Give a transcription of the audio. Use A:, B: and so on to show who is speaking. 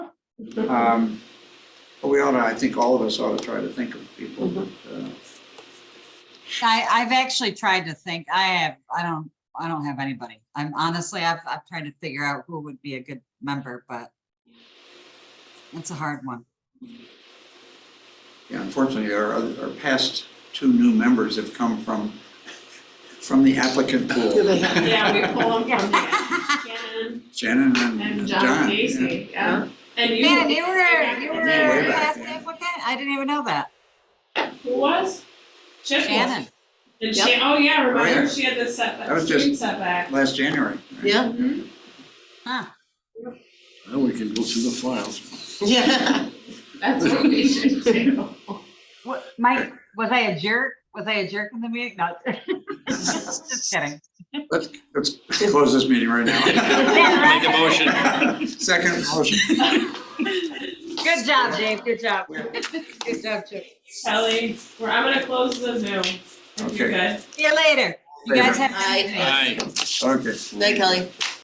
A: Um, But we ought to, I think all of us ought to try to think of people that,
B: Mm-hmm.
A: uh,
C: I, I've actually tried to think, I have, I don't, I don't have anybody. I'm honestly, I've, I've tried to figure out who would be a good member, but it's a hard one.
A: yeah, unfortunately, our, other- our past two new members have come from, from the applicant pool.
B: Do they have-
D: Yeah, we pull them from the
C: Man,
D: Ken
A: Shannon and
D: and
A: John.
D: John
A: yeah.
D: Casey, yeah. And you,
C: you were, you were
D: Yeah,
A: way back
C: last
A: then.
C: applicant? I didn't even know that.
D: who was? Chip was.
C: Shannon.
D: And
B: Yep.
D: Shan,
A: Oh,
D: oh yeah,
A: yeah.
D: remember, she had the setback,
A: That was just-
D: street setback.
A: Last January. right?
B: Yeah,
D: Mhm.
E: Now we can go through the files.
B: yeah.
D: That's what we should do.
C: What, Mike, was I a jerk? Was I a jerk in the meeting? No. Just kidding.
A: Let's, let's close this meeting right now.
C: Make a
E: motion.
A: Second motion.
C: Good job, Dave. Good job. Good job, Chip.
D: Kelly, we're, I'm gonna close the Zoom. if you're
A: Okay.
D: good.
C: See you later. You guys have. a good
B: Bye.
C: day.
E: Aye.
A: Okay.
B: Night, Kelly.